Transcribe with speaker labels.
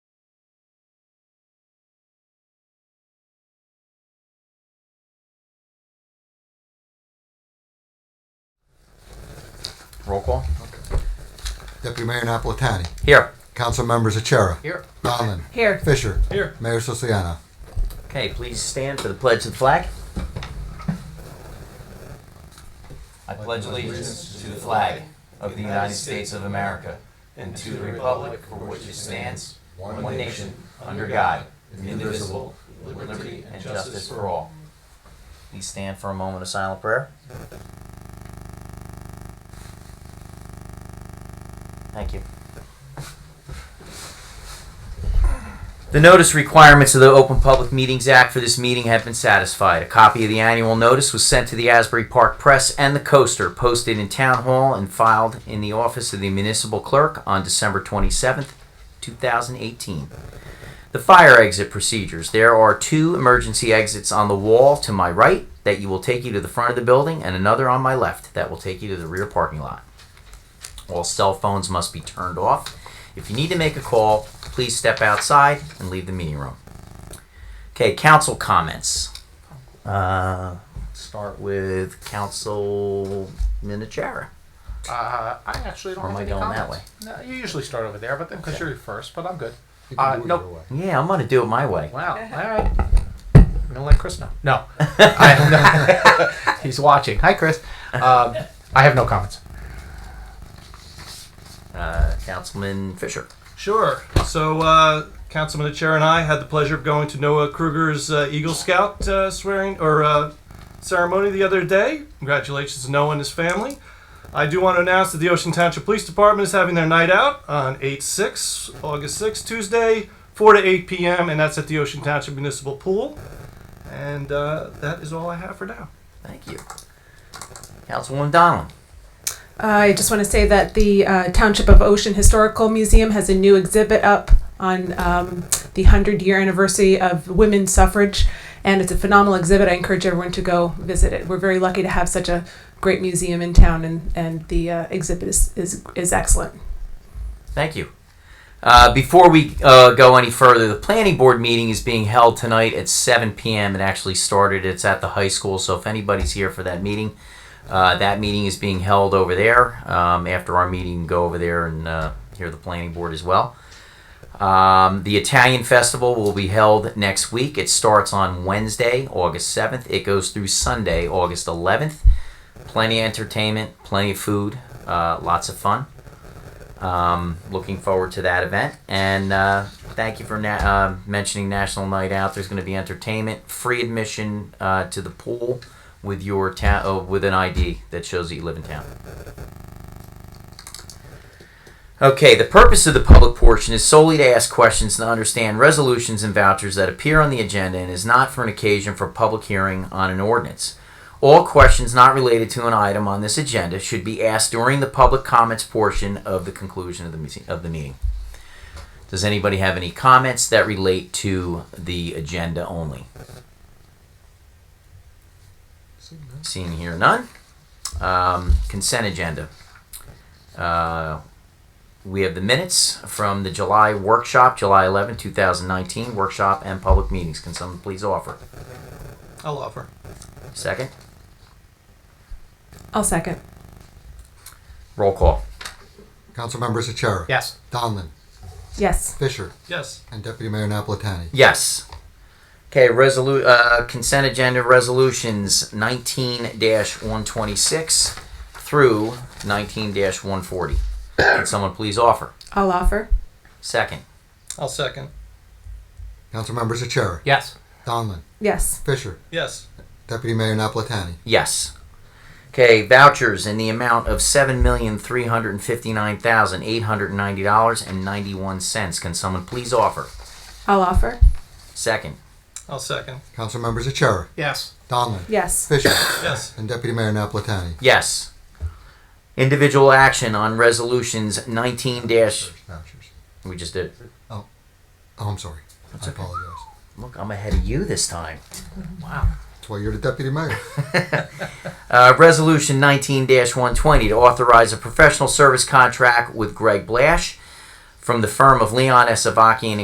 Speaker 1: Roll call.
Speaker 2: Deputy Mayor Napolitani.
Speaker 1: Here.
Speaker 2: Council members Achara.
Speaker 1: Here.
Speaker 2: Donlin.
Speaker 3: Here.
Speaker 2: Fisher.
Speaker 4: Here.
Speaker 2: Mayor Sosiano.
Speaker 1: Okay, please stand for the pledge of the flag. I pledge allegiance to the flag of the United States of America and to the republic for which it stands, one nation, under God, indivisible, with liberty and justice for all. Please stand for a moment of silent prayer. Thank you. The notice requirements of the Open Public Meetings Act for this meeting have been satisfied. A copy of the annual notice was sent to the Asbury Park Press and the Coaster, posted in Town Hall and filed in the office of the municipal clerk on December 27th, 2018. The fire exit procedures. There are two emergency exits on the wall to my right that you will take you to the front of the building and another on my left that will take you to the rear parking lot. All cell phones must be turned off. If you need to make a call, please step outside and leave the meeting room. Okay, council comments. Uh, start with Council Minichara.
Speaker 4: Uh, I actually don't
Speaker 1: Or am
Speaker 4: have
Speaker 1: I
Speaker 4: any
Speaker 1: going that
Speaker 4: comments. No, you usually start over there, but then because
Speaker 1: Okay.
Speaker 4: you're first, but I'm good.
Speaker 2: You
Speaker 4: Uh,
Speaker 2: can do it
Speaker 4: nope.
Speaker 2: either way.
Speaker 1: Yeah, I'm gonna do it my way.
Speaker 4: Wow. All right. I'm gonna let Chris know. No, I have no- he's watching. Hi, Chris. Um, I have no comments.
Speaker 1: Uh, Councilman Fisher.
Speaker 5: Sure. So, uh, Councilman Chair and I had the pleasure of going to Noah Kruger's uh, Eagle Scout uh, swearing or uh, ceremony the other day. Congratulations to Noah and his family. I do want to announce that the Ocean Township Police Department is having their night out on 8 6, August 6, Tuesday, 4 to 8 p.m., and that's at the Ocean Township Municipal Pool. And uh, that is all I have for now.
Speaker 1: Thank you. Councilwoman Donlin.
Speaker 3: I just want to say that the uh, Township of Ocean Historical Museum has a new exhibit up on um, the 100 year anniversary of women's suffrage, and it's a phenomenal exhibit. I encourage everyone to go visit it. We're very lucky to have such a great museum in town, and, and the uh, exhibit is, is, is excellent.
Speaker 1: Thank you. Uh, before we uh, go any further, the planning board meeting is being held tonight at 7 p.m. It actually started. It's at the high school, so if anybody's here for that meeting, uh, that meeting is being held over there. Um, after our meeting, go over there and uh, hear the planning board as well. Um, the Italian Festival will be held next week. It starts on Wednesday, August 7th. It goes through Sunday, August 11th. Plenty of entertainment, plenty of food, uh, lots of fun. Um, looking forward to that event. And uh, thank you for na- uh, mentioning National Night Out. There's going to be entertainment, free admission uh, to the pool with your ta- oh, with an ID that shows that you live in town. Okay, the purpose of the public portion is solely to ask questions and understand resolutions and vouchers that appear on the agenda and is not for an occasion for public hearing on an ordinance. All questions not related to an item on this agenda should be asked during the public comments portion of the conclusion of the meeting. Of the meeting. Does anybody have any comments that relate to the agenda only? Seeing here none. Um, consent agenda. Uh, we have the minutes from the July workshop, July 11, 2019 workshop and public meetings. Can someone please offer?
Speaker 5: I'll offer.
Speaker 1: Second.
Speaker 3: I'll second.
Speaker 1: Roll call.
Speaker 2: Council members Achara.
Speaker 4: Yes.
Speaker 2: Donlin.
Speaker 3: Yes.
Speaker 2: Fisher.
Speaker 5: Yes.
Speaker 2: And Deputy Mayor Napolitani.
Speaker 1: Yes. Okay, resolu- uh, consent agenda resolutions 19 126 through 19 140. Can someone please offer?
Speaker 3: I'll offer.
Speaker 1: Second.
Speaker 5: I'll second.
Speaker 2: Council members Achara.
Speaker 4: Yes.
Speaker 2: Donlin.
Speaker 3: Yes.
Speaker 2: Fisher.
Speaker 5: Yes.
Speaker 2: Deputy Mayor Napolitani.
Speaker 1: Yes. Okay, vouchers in the amount of $7,359,890.91. Can someone please offer?
Speaker 3: I'll offer.
Speaker 1: Second.
Speaker 5: I'll second.
Speaker 2: Council members Achara.
Speaker 4: Yes.
Speaker 2: Donlin.
Speaker 3: Yes.
Speaker 2: Fisher.
Speaker 5: Yes.
Speaker 2: And Deputy Mayor Napolitani.
Speaker 1: Yes. Individual action on resolutions 19 dash.
Speaker 2: Vouchers.
Speaker 1: We just did.
Speaker 2: Oh, I'm sorry. I apologize.
Speaker 1: Look, I'm ahead of you this time. Wow.
Speaker 2: That's why you're the deputy mayor.
Speaker 1: Uh, resolution 19 120 to authorize a professional service contract with Greg Blash from the firm of Leon S. Avakian